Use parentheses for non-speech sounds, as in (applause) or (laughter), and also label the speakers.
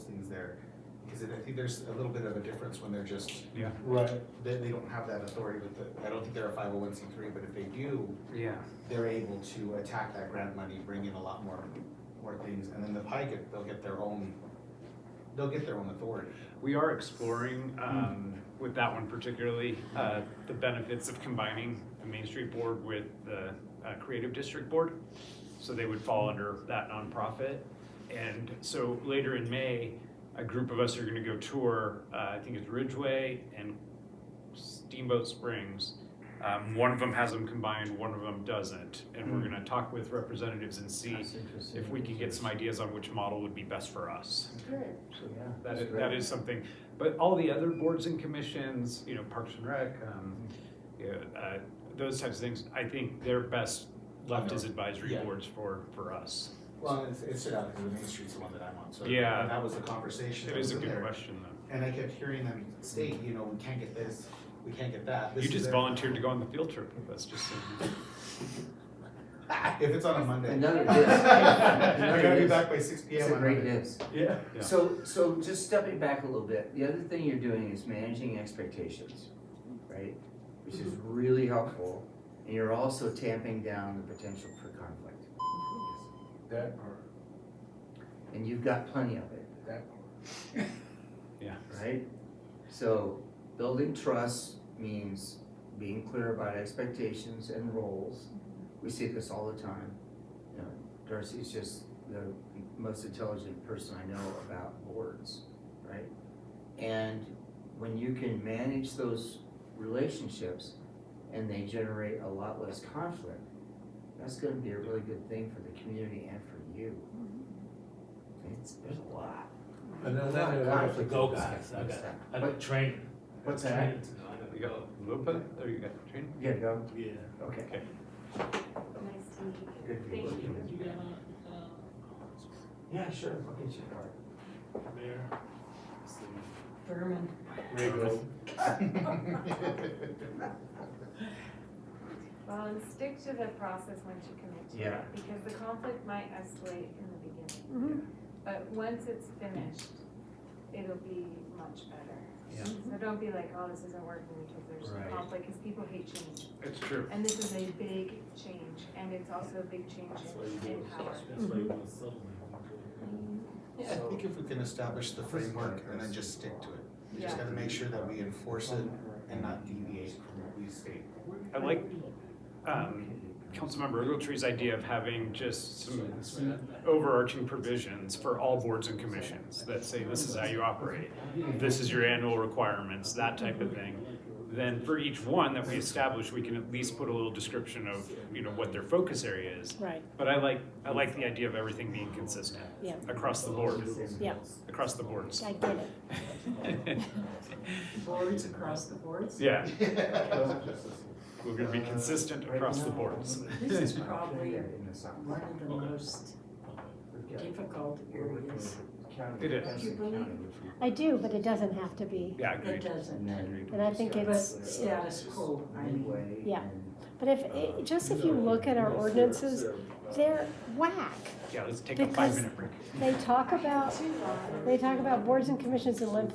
Speaker 1: because I think there's a little bit of a difference when they're just,
Speaker 2: Yeah,
Speaker 3: Right,
Speaker 1: they, they don't have that authority with the, I don't think they're a five oh one C three, but if they do,
Speaker 2: yeah,
Speaker 1: they're able to attack that grant money, bring in a lot more, more things, and then the pie get, they'll get their own, they'll get their own authority.
Speaker 2: we are exploring, um, with that one particularly, uh, the benefits of combining the Main Street Board with the, uh, Creative District Board. So they would fall under that nonprofit. And so later in May, a group of us are gonna go tour, uh, I think it's Ridgeway and Steamboat Springs. Um, one of them has them combined, one of them doesn't, and we're gonna talk with representatives and see
Speaker 4: That's interesting.
Speaker 2: if we can get some ideas on which model would be best for us.
Speaker 4: Good.
Speaker 3: yeah.
Speaker 2: That
Speaker 3: that's
Speaker 2: is,
Speaker 3: great.
Speaker 2: that is something, but all the other boards and commissions, you know, Parks and Rec, um, yeah, uh, those types of things, I think they're best left as advisory
Speaker 1: Yeah.
Speaker 2: boards for, for us.
Speaker 1: Well, it's, it's stood out because the Main Street's the one that I'm on, so.
Speaker 2: Yeah.
Speaker 1: and That was the conversation.
Speaker 2: It
Speaker 1: that was
Speaker 2: is a
Speaker 1: in
Speaker 2: good
Speaker 1: there.
Speaker 2: question though.
Speaker 1: And I kept hearing them state, you know, we can't get this, we can't get that. this
Speaker 2: You
Speaker 1: is
Speaker 2: just
Speaker 1: it.
Speaker 2: volunteered to go on the field trip with us, just so you know.
Speaker 1: If it's on a Monday.
Speaker 4: And none of
Speaker 2: (laughs)
Speaker 4: this.
Speaker 1: (laughs) I gotta be back by six P
Speaker 4: It's
Speaker 1: M
Speaker 4: a
Speaker 1: on
Speaker 4: great
Speaker 1: Monday.
Speaker 4: news.
Speaker 1: Yeah.
Speaker 2: Yeah.
Speaker 4: So, so just stepping back a little bit, the other thing you're doing is managing expectations, right? Which is
Speaker 2: Mm-hmm.
Speaker 4: really helpful, and you're also tamping down the potential for conflict.
Speaker 3: That part,
Speaker 4: And you've got plenty of it, (laughs)
Speaker 3: that part.
Speaker 2: Yeah,
Speaker 4: right? So building trust means being clear about expectations and roles. We see this all the time. You know, Darcy's just the most intelligent person I know about boards, right? And when you can manage those relationships and they generate a lot less conflict, that's gonna be a really good thing for the community and for you. It's, there's a lot.
Speaker 3: And then
Speaker 4: Lot of
Speaker 3: later, I have to
Speaker 4: conflict
Speaker 3: go,
Speaker 4: in this
Speaker 3: guys, I
Speaker 4: stuff.
Speaker 3: got, I got training.
Speaker 4: What's
Speaker 3: Training
Speaker 4: that?
Speaker 3: tonight, I
Speaker 2: you
Speaker 3: gotta
Speaker 2: got Lupa, or you got Trina?
Speaker 4: You gotta go?
Speaker 3: go. Yeah.
Speaker 4: Okay.
Speaker 2: Okay.
Speaker 5: Nice to meet you.
Speaker 4: Good
Speaker 5: Thank
Speaker 4: people.
Speaker 5: you.
Speaker 6: You got my, uh,
Speaker 4: Yeah, sure, I'll get you a card.
Speaker 3: Mayor.
Speaker 6: Berman.
Speaker 3: Rigo.
Speaker 5: Well, and stick to the process once you commit to it.
Speaker 4: Yeah.
Speaker 5: Because the conflict might escalate in the beginning. But once it's finished, it'll be much better.
Speaker 4: Yeah.
Speaker 5: So don't be like, oh, this isn't working because there's
Speaker 4: Right.
Speaker 5: conflict, because people hate change.
Speaker 2: It's true.
Speaker 5: And this is a big change, and it's also a big change
Speaker 3: That's why you
Speaker 5: in- in
Speaker 3: do,
Speaker 5: power.
Speaker 3: that's why you want to settle it.
Speaker 1: I think if we can establish the framework and then just stick to it, we just
Speaker 5: Yeah.
Speaker 1: gotta make sure that we enforce it and not deviate from what we state.
Speaker 2: I like, um, Councilmember Ogletree's idea of having just some overarching provisions for all boards and commissions that say this is how you operate. This is your annual requirements, that type of thing. Then for each one that we establish, we can at least put a little description of, you know, what their focus area is.
Speaker 7: Right,
Speaker 2: But I like, I like the idea of everything being consistent
Speaker 7: yeah,
Speaker 2: across the board,
Speaker 7: yeah,
Speaker 2: across the boards.
Speaker 7: I get it.
Speaker 2: (laughs)
Speaker 6: Boards across the boards?
Speaker 2: Yeah, we're gonna be consistent
Speaker 4: Uh,
Speaker 2: across the boards.
Speaker 6: This is probably
Speaker 4: In the south.
Speaker 6: one of the most
Speaker 4: We've got-
Speaker 6: difficult
Speaker 4: we're working
Speaker 6: areas.
Speaker 4: with the county,
Speaker 2: It is.
Speaker 4: Madison
Speaker 6: Do you believe-
Speaker 4: County, which we-
Speaker 7: I do, but it doesn't have to be.
Speaker 2: Yeah,
Speaker 6: It
Speaker 2: agreed.
Speaker 6: doesn't,
Speaker 4: And then.
Speaker 7: And I think
Speaker 6: but
Speaker 7: it's,
Speaker 6: status quo, I mean,
Speaker 4: Midway
Speaker 7: Yeah.
Speaker 4: and-
Speaker 7: but if, it- just if you look at our ordinances, they're whack.
Speaker 2: Yeah, let's take a five-minute break.
Speaker 7: They talk about, they talk about boards and commissions and limp